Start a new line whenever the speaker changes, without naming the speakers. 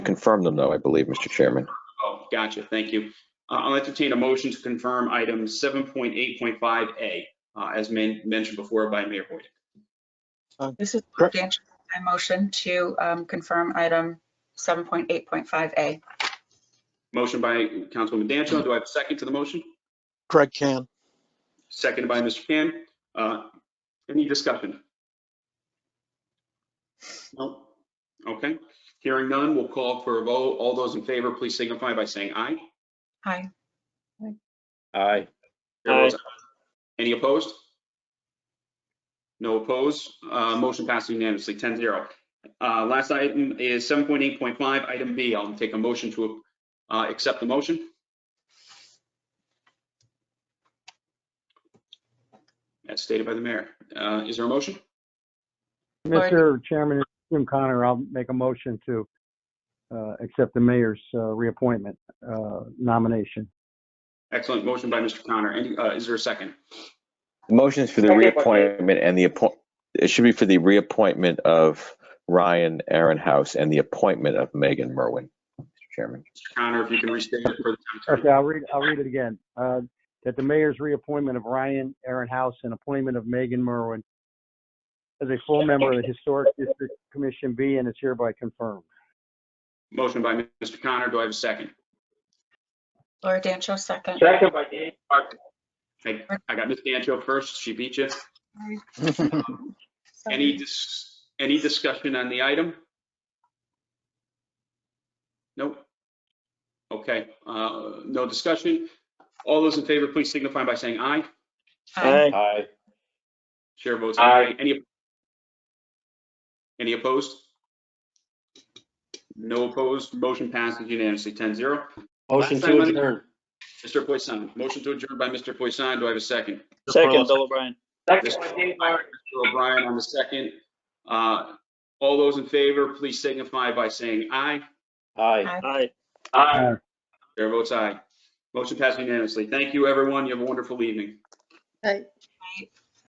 confirm them though, I believe, Mr. Chairman.
Oh, gotcha. Thank you. Uh, I'll entertain a motion to confirm item 7.8.5A, uh, as men- mentioned before by Mayor Boyd.
This is
Correct.
Dan. I motion to um, confirm item 7.8.5A.
Motion by Councilwoman Dancho. Do I have a second to the motion?
Craig can.
Seconded by Mr. Can. Uh, Any discussion? No? Okay. Hearing none, we'll call for a vote. All those in favor, please signify by saying aye.
Aye.
Aye.
Chair votes Any opposed? No opposed. Uh, Motion passed unanimously, 10-0. Uh, Last item is 7.8.5, item B. I'll take a motion to uh, accept the motion. As stated by the mayor. Uh, Is there a motion?
Lord.
Mr. Chairman, it's Jim Connor, I'll make a motion to uh, accept the mayor's uh, reappointment uh, nomination.
Excellent. Motion by Mr. Connor. Any- uh, Is there a second?
The motion is for the
Okay, but-
reappointment and the appoint, it should be for the reappointment of Ryan Aaron House and the appointment of Megan Merwin, Mr. Chairman.
Mr. Connor, if you can restate it for the time.
Okay, I'll read, I'll read it again. Uh, That the mayor's reappointment of Ryan Aaron House and appointment of Megan Merwin as a full member of the Historic District Commission be and is hereby confirmed.
Motion by Mr. Connor. Do I have a second?
Laura Dancho, second.
Second by Dan.
I I got Ms. Dancho first. She beat you. Any, dis- any discussion on the item? Nope. Okay, uh, no discussion. All those in favor, please signify by saying aye.
Aye.
Aye.
Chair votes
Aye.
aye. Any, any opposed? No opposed. Motion passes unanimously, 10-0.
Motion
Last time
to
on-
adjourn.
Mr. Poisson, motion to adjourn by Mr. Poisson. Do I have a second?
Second, Bill O'Brien.
Mr. Mr. O'Brien on the second. Uh, all those in favor, please signify by saying aye.
Aye.
Aye.
Aye.
Chair votes aye. Motion passed unanimously. Thank you, everyone. You have a wonderful evening.